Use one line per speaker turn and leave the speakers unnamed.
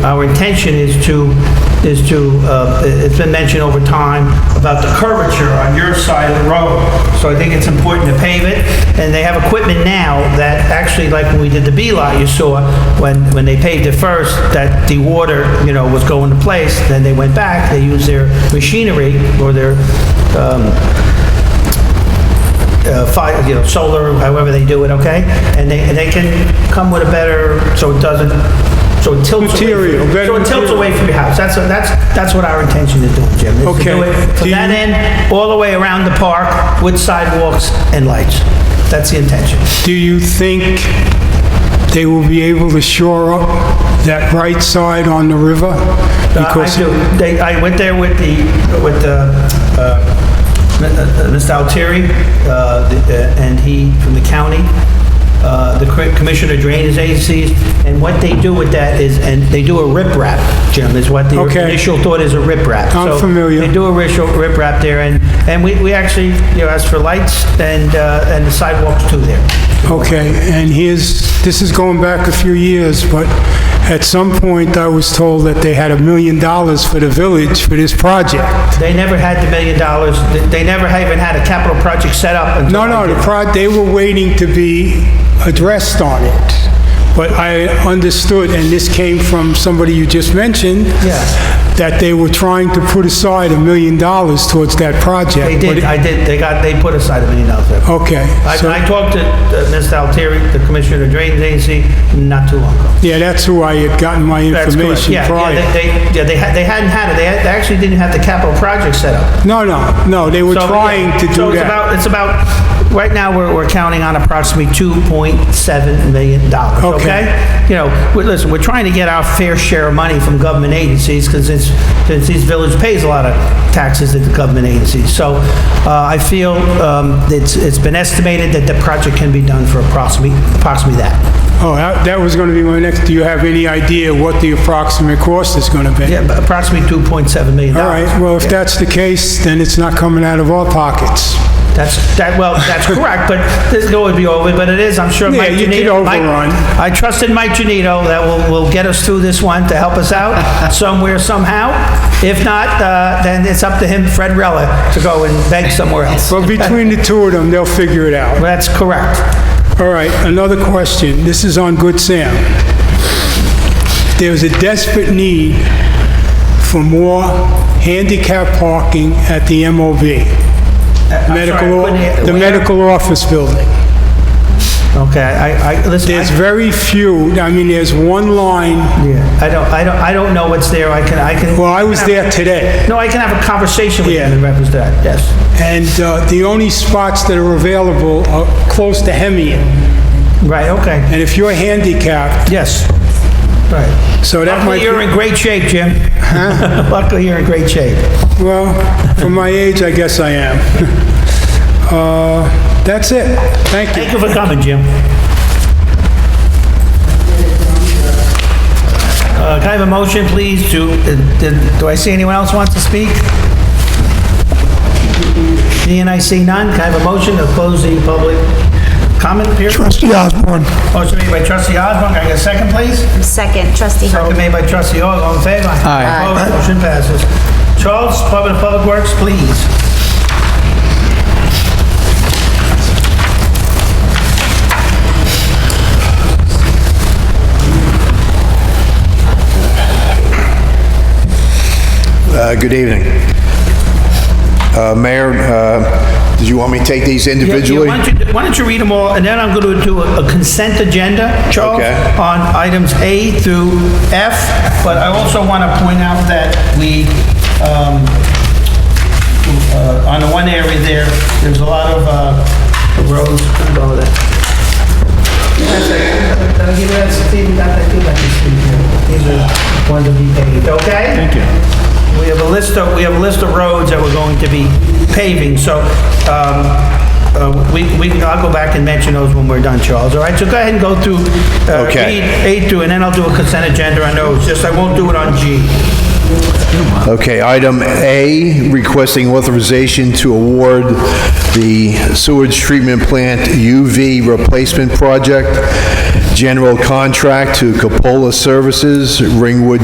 Our intention is to, is to, uh, it's been mentioned over time about the curvature on your side of the road. So I think it's important to pave it, and they have equipment now that actually, like when we did the B lot, you saw, when, when they paved it first, that the water, you know, was going to place, then they went back, they used their machinery or their, um, uh, fi you know, solar, however they do it, okay? And they, and they can come with a better, so it doesn't, so it tilts away.
Material, better
So it tilts
material.
away from your house. That's, that's, that's what our intention is doing, Jim. is to
Okay.
do it From
Do
that
you-
end, all the way around the park with sidewalks and lights. That's the intention.
Do you think they will be able to shore up that right side on the river?
Uh, I
Because
do. They, I went there with the, with the, uh, Mi- uh, Mr. Altieri, uh, the- uh, and he, from the county, uh, the cri- Commissioner of Drainage Agencies, and what they do with that is, and they do a riprap, Jim, is what the
Okay.
initial thought is a riprap.
I'm
So
familiar.
They do a ritual riprap there, and, and we, we actually, you know, as for lights and, uh, and the sidewalks too there.
Okay, and here's, this is going back a few years, but at some point, I was told that they had a million dollars for the village for this project.
They never had the million dollars, They- they never even had a capital project set up until
No, no, the pro, they were waiting to be addressed on it. But I understood, and this came from somebody you just mentioned.
Yes.
That they were trying to put aside a million dollars towards that project.
They
but
did,
it-
I did, they got, they put aside a million dollars there.
Okay. so-
I, I talked to uh, Mr. Altieri, the Commissioner of Drainage Agency, not too long ago.
Yeah, that's who I had gotten my
That's correct.
information
Yeah,
prior.
Yeah, they, they- yeah, they had- they hadn't had it, they had- they actually didn't have the capital project set up.
No, no, no, they were
So, yeah,
trying to
So
do
it's
that.
about, it's about, right now, we're, we're counting on approximately 2.7 million dollars,
Okay.
okay? You know, we- listen, we're trying to get our fair share of money from government agencies, because it's, since these village pays a lot of taxes to the government agencies. So, uh, I feel, um, it's, it's been estimated that the project can be done for approximately, approximately that.
Oh, that that was going to be my next, do you have any idea what the approximate cost is going to be?
Yeah, but approximately 2.7 million
All
dollars.
right, well, if that's the case, then it's not coming out of our pockets.
That's, that, well, that's correct, but this could always be over, but it is, I'm sure
Yeah,
Mike Genito.
you could
Mike-
overrun.
I trusted Mike Genito that will, will get us through this one to help us out somewhere, somehow. If not, uh, then it's up to him, Fred Rella, to go and beg somewhere else.
But between the two of them, they'll figure it out.
That's correct.
All right, another question. This is on Good Sam. There's a desperate need for more handicap parking at the
I'm
MOB,
sorry, I
medical,
couldn't hear-
the
where?
medical office building.
Okay, I, I, listen,
There's
I-
very few, I mean, there's one line,
yeah, I don't, I don't, I don't know what's there, I can, I can.
well, I was there today,
No, I can have a conversation with
Yeah.
him in reference to that, yes.
and uh, the only spots that are available are close to Hemian.
Right, okay,
And if you're handicapped,
yes, right.
so that
Luckily,
might
you're
be,
in great shape, Jim. Luckily, you're in great shape.
well, for my age, I guess I am. Uh, That's it. Thank you.
Thank you for coming, Jim. Uh, Can I have a motion, please, to, uh, did- do I see anyone else wants to speak? Seeing I see none, can I have a motion to close the public comment period?
Trustee Osborne.
Motion made by trustee Osborne, can I get a second, please?
Second, trustee Hope.
Second made by trustee Ogg, all in favor?
Aye.
Opposed, motion passes. Charles, Department of Public Works, please.
Uh, Good evening. Uh, Mayor, uh, did you want me to take these
Yeah, yeah,
individually?
Why don't you- why don't you read them all, and then I'm going to do a a consent agenda, Charles,
Okay.
on items A through F, but I also want to point out that we, um, uh, on the one area there, there's a lot of uh, roads, I'm going with that. Give me that, Steve, you got that, give that to Steve here. These are ones to be paved, okay? Thank you. We have a list of, we have a list of roads that we're going to be paving, so, um, uh, we, we, I'll go back and mention those when we're done, Charles, all right? So go ahead and go through, uh,
Okay.
read A through, and then I'll do a consent agenda on those, just I won't do it on G.
Okay, item A, requesting authorization to award the sewage treatment plant UV replacement project, general contract to Capola Services, Ringwood,